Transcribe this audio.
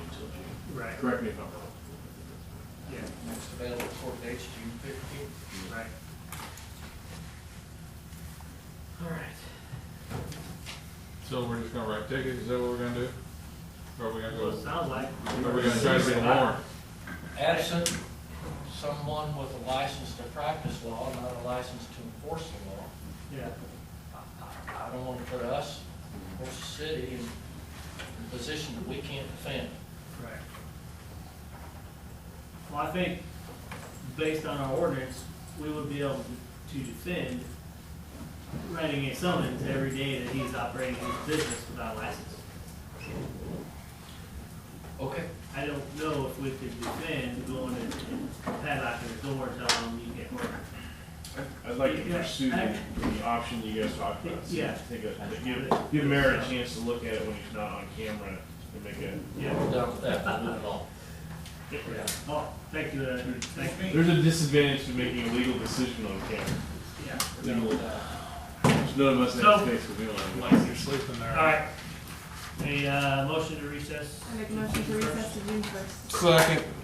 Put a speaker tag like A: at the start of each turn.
A: Right.
B: Correct me if I'm wrong.
A: Yeah,
C: Next available court date's June fifteenth.
A: right.
C: All right.
B: So we're just gonna write tickets, is that what we're gonna do? Or are we gonna go,
A: Well, it sounds like.
B: are we gonna try to get a warrant?
C: Absent someone with a license to practice law, not a license to enforce the law.
A: Yeah,
C: I- I don't want to put us or the city in a position that we can't defend.
A: right. Well, I think, based on our ordinance, we would be able to defend writing a summons every day that he's operating his business without a license.
C: Okay.
A: I don't know if we could defend going and and padlocking the doors on him, you get work.
D: I'd- I'd like to
A: Yeah.
D: pursue the, the option you guys talked about. see if
A: Yeah.
D: Take a, give, give Mayor a chance to look at it when he's not on camera and make a,
A: Yeah,
C: We're done with that, we're moving on.
A: yeah. Oh, thank you, uh, thank you.
D: there's a disadvantage to making a legal decision on camera.
A: Yeah.
C: We're done with that.
D: There's None of us
A: So-
D: have space, we don't have. one.
E: Unless you're sleeping there.
A: All right. A, uh, motion to recess.
F: I make a motion to recess to June first.
B: Second.